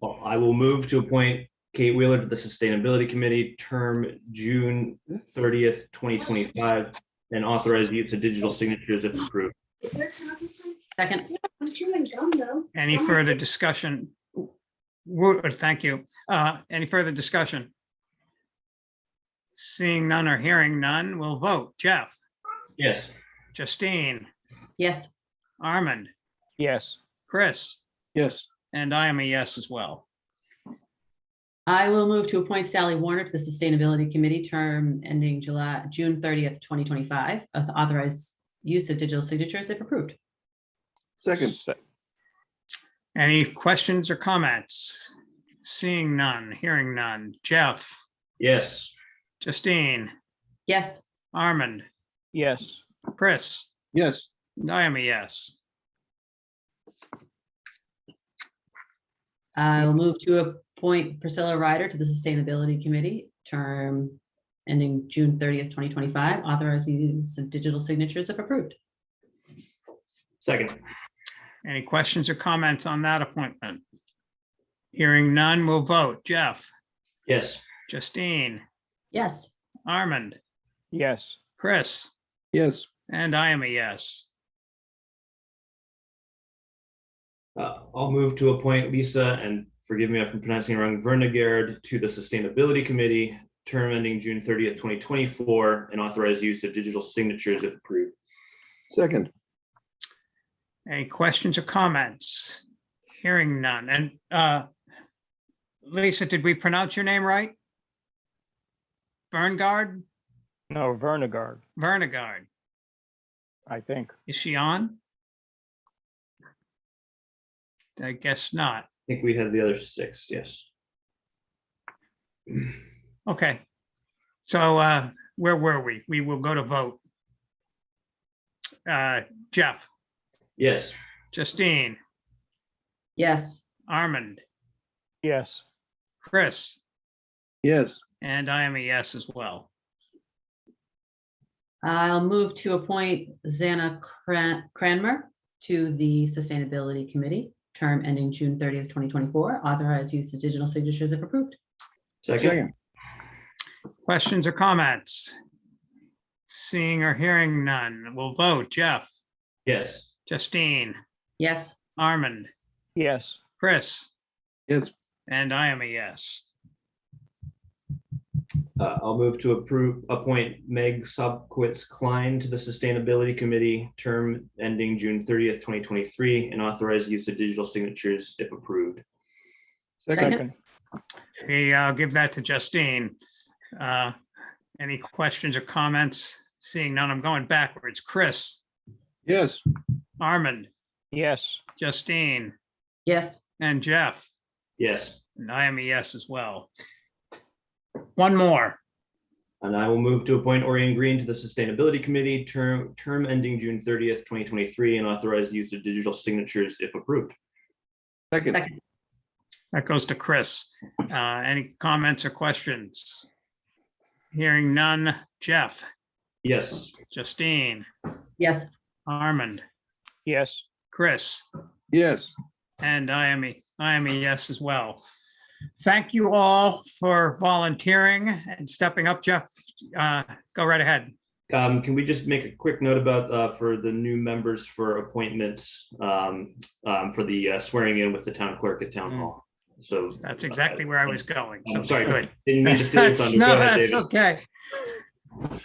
Well, I will move to appoint Kate Wheeler to the Sustainability Committee, term June thirtieth, twenty twenty-five, and authorize use of digital signatures if approved. Second, I'm chewing gum though. Any further discussion? Wo- Thank you. Uh, Any further discussion? Seeing none or hearing none, we'll vote. Jeff, Yes, Justine, yes, Armand, Yes. Chris, Yes. and I am a yes as well. I will move to appoint Sally Warner to the Sustainability Committee, term ending July, June thirtieth, twenty twenty-five, authorized use of digital signatures if approved. Second. Any questions or comments? Seeing none, hearing none. Jeff, yes, Justine, Yes, Armand, Yes. Chris, Yes. and I am a yes. I'll move to appoint Priscilla Ryder to the Sustainability Committee, term ending June thirtieth, twenty twenty-five, authorized use of digital signatures if approved. second, Any questions or comments on that appointment? Hearing none, we'll vote. Jeff, yes, Justine, Yes, Armand, Yes. Chris, Yes. and I am a yes. Uh, I'll move to appoint Lisa, and forgive me if I'm pronouncing it wrong, Vernegard to the Sustainability Committee, term ending June thirtieth, twenty twenty-four, and authorize use of digital signatures if approved. Second. Any questions or comments? Hearing none. And uh, Lisa, did we pronounce your name right? Berngard, No, Vernegard, Vernegard. I think. Is she on? I guess not. I think we had the other six, yes. Okay. So uh, where were we? We will go to vote. Uh, Jeff, Yes, Justine, yes, Armand, Yes. Chris, Yes. and I am a yes as well. I'll move to appoint Zana Cran- Cranmer to the Sustainability Committee, term ending June thirtieth, twenty twenty-four, authorized use of digital signatures if approved. second, Questions or comments? Seeing or hearing none, we'll vote. Jeff, yes. Justine, Yes, Armand, Yes. Chris, Yes. and I am a yes. Uh, I'll move to approve, appoint Meg Sobkowitz Klein to the Sustainability Committee, term ending June thirtieth, twenty twenty-three, and authorize use of digital signatures if approved. Second. Hey, I'll uh, give that to Justine. Uh, Any questions or comments? Seeing none, I'm going backwards. Chris, Yes. Armand, Yes. Justine, yes, and Jeff, Yes, and I am a yes as well. One more. and I will move to appoint Orion Green to the Sustainability Committee, term, term ending June thirtieth, twenty twenty-three, and authorize use of digital signatures if approved. Second. Second. That goes to Chris. Uh, Any comments or questions? Hearing none. Jeff, Yes, Justine, yes, Armand, Yes. Chris, Yes. and I am a, I am a yes as well. Thank you all for volunteering and stepping up. Jeff, uh, go right ahead. Um, can we just make a quick note about, uh, for the new members for appointments, um, um, for the uh, swearing in with the town clerk at town hall? So. That's exactly where I was going. So I'm sorry. good. Didn't mean to steal your That's- thunder. No, Go ahead, that's David. okay.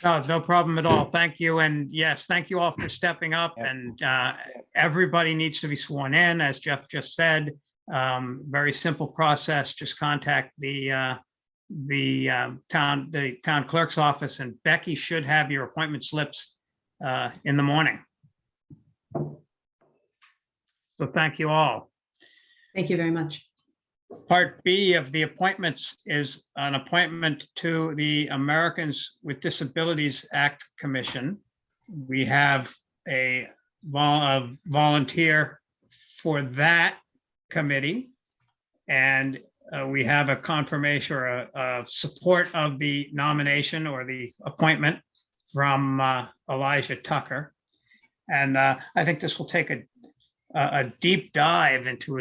No, no problem at all. Thank you. And yes, thank you all for stepping up and uh, everybody needs to be sworn in, as Jeff just said. Um, Very simple process. Just contact the uh, the um, town, the town clerk's office and Becky should have your appointment slips uh, in the morning. So thank you all. thank you very much. Part B of the appointments is an appointment to the Americans with Disabilities Act Commission. We have a vol- a volunteer for that committee. And uh, we have a confirmation or a, a support of the nomination or the appointment from uh, Elijah Tucker. And uh, I think this will take a, a a deep dive into